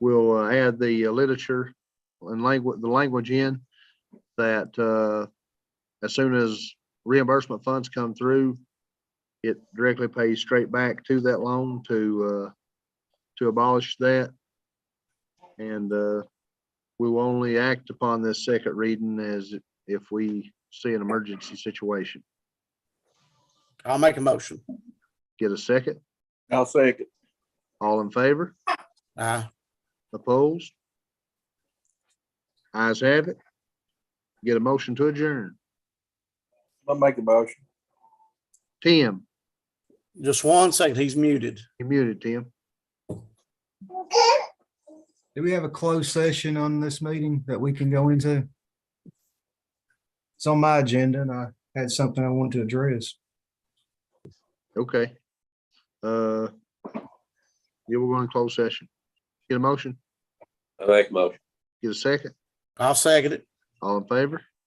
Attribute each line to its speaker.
Speaker 1: we'll uh, add the uh, literature and language, the language in that uh, as soon as reimbursement funds come through, it directly pays straight back to that loan to, uh, to abolish that. And uh, we will only act upon this second reading as if we see an emergency situation.
Speaker 2: I'll make a motion.
Speaker 1: Get a second?
Speaker 3: I'll second.
Speaker 1: All in favor?
Speaker 2: Aye.
Speaker 1: Opposed? Eyes have it. Get a motion to adjourn.
Speaker 3: I'll make a motion.
Speaker 1: Tim,
Speaker 2: Just one second, he's muted.
Speaker 1: you muted, Tim.
Speaker 4: Do we have a closed session on this meeting that we can go into? It's on my agenda and I had something I wanted to address.
Speaker 1: Okay. Uh, yeah, we're going to close session. Get a motion,
Speaker 5: I make a motion.
Speaker 1: get a second.
Speaker 2: I'll second it.
Speaker 1: All in favor?